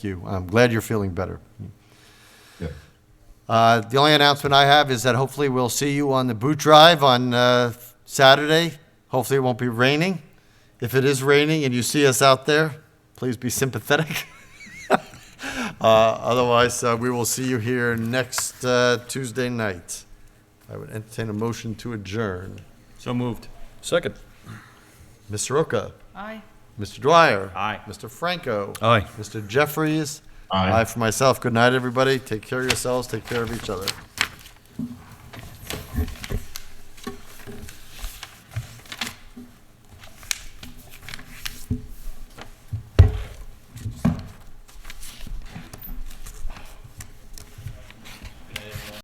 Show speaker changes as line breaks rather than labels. you. I'm glad you're feeling better.
Yeah.
Uh, The only announcement I have is that hopefully we'll see you on the boot drive on uh, Saturday. Hopefully it won't be raining. If it is raining and you see us out there, please be sympathetic. Uh, Otherwise, uh, we will see you here next uh, Tuesday night. I would entertain a motion to adjourn.
So moved.
Second.
Ms. Soroka,
Aye.
Mr. Dwyer.
Aye.
Mr. Franco.
Aye.
Mr. Jeffries.
Aye.
Aye for myself. Good night, everybody. Take care of yourselves. Take care of each other.